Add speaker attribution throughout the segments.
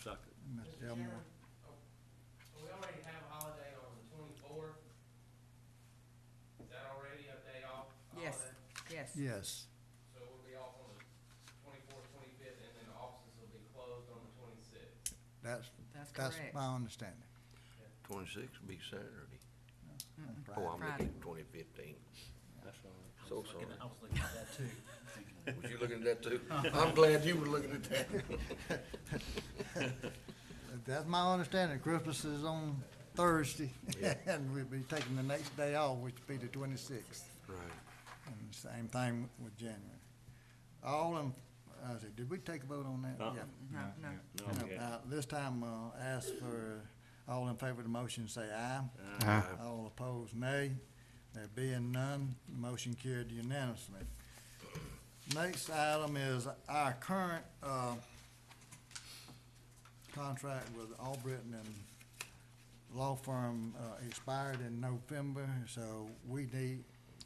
Speaker 1: Second.
Speaker 2: Mr.
Speaker 3: Mr.
Speaker 2: Elmore.
Speaker 3: Chairman, oh, we already have a holiday on the twenty-fourth. Is that already a day off? a
Speaker 4: Yes.
Speaker 3: holiday?
Speaker 4: Yes.
Speaker 2: Yes,
Speaker 3: So we'll be off on the twenty-fourth, twenty-fifth, and then the offices will be closed on the twenty-sixth.
Speaker 2: that's,
Speaker 4: That's
Speaker 2: that's
Speaker 4: correct.
Speaker 2: my understanding.
Speaker 5: Twenty-six would be Saturday.
Speaker 4: Mm-mm.
Speaker 2: Right.
Speaker 5: Oh, I'm
Speaker 4: Friday.
Speaker 5: looking at twenty fifteen.
Speaker 1: That's all right. I
Speaker 5: So
Speaker 1: was looking-
Speaker 5: sorry.
Speaker 1: I was looking at that too. thinking,
Speaker 5: Was you looking at that too? I'm glad you were looking at that.
Speaker 2: That's my understanding. Christmas is on Thursday,
Speaker 5: Yeah.
Speaker 2: and we'll be taking the next day off, which would be the twenty-sixth.
Speaker 5: Right.
Speaker 2: And the same thing with January. All in, I said, did we take a vote on that?
Speaker 1: Uh-uh.
Speaker 2: Yeah.
Speaker 4: No, no.
Speaker 1: No,
Speaker 2: No,
Speaker 1: okay.
Speaker 2: uh, This time, uh, ask for, all in favor of the motion, say aye. All opposed, nay. There being none, the motion carried unanimously. Next item is our current, uh, contract with Albritton and law firm, uh, expired in November, so we need,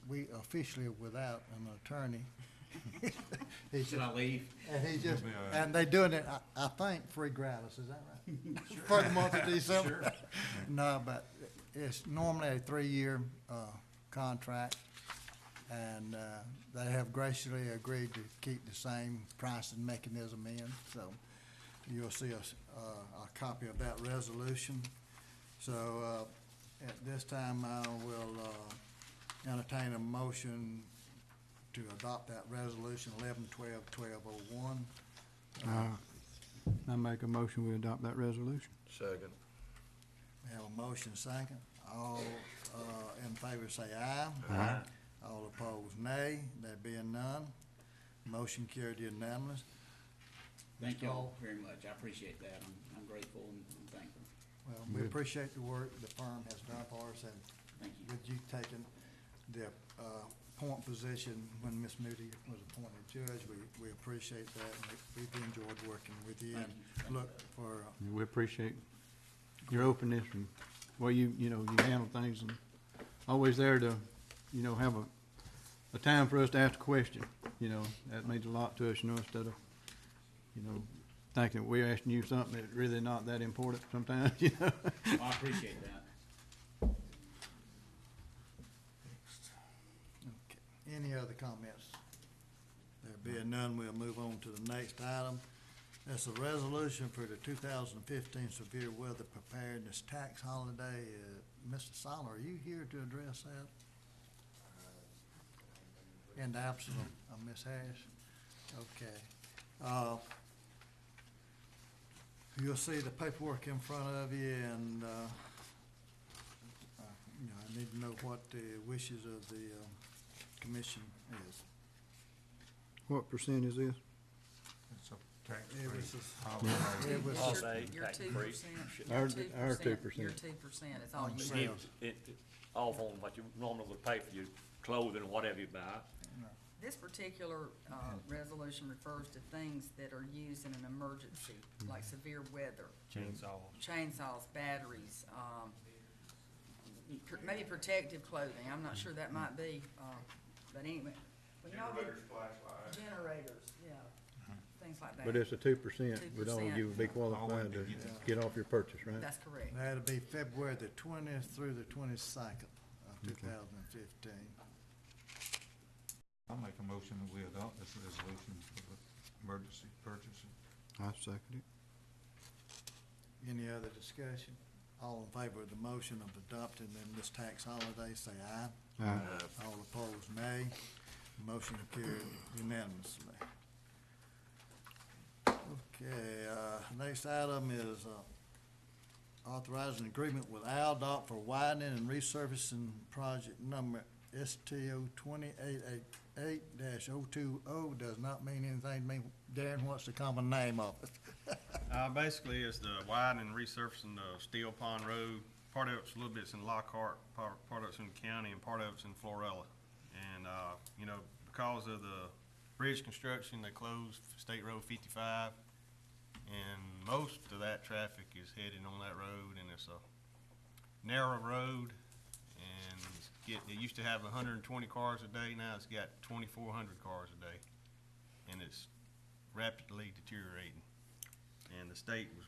Speaker 2: we officially without an attorney. He's
Speaker 1: Should I leave?
Speaker 2: and he just, and they doing it, I, I think, free gratis, is that right? For the month of December. No, but it's normally a three-year, uh, contract. And, uh, they have graciously agreed to keep the same pricing mechanism in, so you'll see a, s- uh, a copy of that resolution. So, uh, at this time, I will, uh, entertain a motion to adopt that resolution eleven twelve twelve oh one.
Speaker 6: I make a motion, we adopt that resolution.
Speaker 5: Second.
Speaker 2: We have a motion second. All, uh, in favor say aye.
Speaker 1: Aye.
Speaker 2: All opposed, nay. There being none, motion carried unanimous.
Speaker 7: Thank
Speaker 2: Mr.
Speaker 7: you all
Speaker 2: Hall?
Speaker 7: very much. I appreciate that. I'm, I'm grateful and and thankful.
Speaker 2: Well, we appreciate the work the firm has done for us and
Speaker 7: Thank you.
Speaker 2: with you taking the, uh, point position when Ms. Moody was appointed judge, we, we appreciate that. and we- We've enjoyed working with you and
Speaker 7: Thank you.
Speaker 2: look for,
Speaker 6: We appreciate your openness and, well, you, you know, you handle things and always there to, you know, have a, a time for us to ask a question, you know, that means a lot to us, you know, instead of, you know, thinking we're asking you something that's really not that important sometimes, you know?
Speaker 7: Well, I appreciate that.
Speaker 2: Any other comments? There being none, we'll move on to the next item. That's a resolution for the two thousand fifteen severe weather preparedness tax holiday. Uh, Mr. Soler, are you here to address that? In the absence of- of Ms. Harris? Okay. Uh, You'll see the paperwork in front of you and, uh, uh, you know, I need to know what the wishes of the, um, commission is.
Speaker 6: What percent is this?
Speaker 8: It's a tax
Speaker 2: It was
Speaker 8: free
Speaker 2: just-
Speaker 8: holiday.
Speaker 2: It was
Speaker 4: Your-
Speaker 2: just-
Speaker 1: Holiday,
Speaker 4: Your
Speaker 1: tax
Speaker 4: two
Speaker 1: break.
Speaker 4: percent.
Speaker 6: Our- our
Speaker 4: Your
Speaker 6: 2%.
Speaker 4: two percent is all you
Speaker 2: Sales.
Speaker 4: need.
Speaker 1: It, it- off on what you normally would pay for your clothing and whatever you buy.
Speaker 4: This particular, uh, resolution refers to things that are used in an emergency, like severe weather.
Speaker 8: Chainsaw.
Speaker 4: chainsaws, batteries, um, pr- maybe protective clothing, I'm not sure that might be, uh, but anyway. when y'all did-
Speaker 3: Generators, flashlights.
Speaker 4: Generators, yeah, things like that.
Speaker 6: But it's a two percent, but all
Speaker 4: 2%.
Speaker 6: of you would be qualified to get off your purchase, right?
Speaker 4: That's correct.
Speaker 2: That'll be February the twentieth through the twenty-second of two thousand and fifteen.
Speaker 8: I'll make a motion that we adopt this resolution for the emergency purchasing.
Speaker 6: I second it.
Speaker 2: Any other discussion? All in favor of the motion of adopting them this tax holiday, say aye.
Speaker 6: Aye.
Speaker 2: All opposed, nay. Motion carried unanimously. Okay, uh, next item is, uh, authorizing agreement with Aldott for widening and resurfacing project number STO twenty-eight eight eight dash oh two oh does not mean anything to me. Darren, what's the common name of it?
Speaker 9: Uh, basically, it's the widening, resurfacing the Steel Pond Road. Part of it's a little bit's in Lockhart, part, part of it's in the county, and part of it's in Florella. And, uh, you know, because of the bridge construction, they closed State Road fifty-five. And most of that traffic is heading on that road, and it's a narrow road. And it's get, it used to have hundred and twenty cars a day, now it's got twenty-four hundred cars a day. And it's rapidly deteriorating and the state was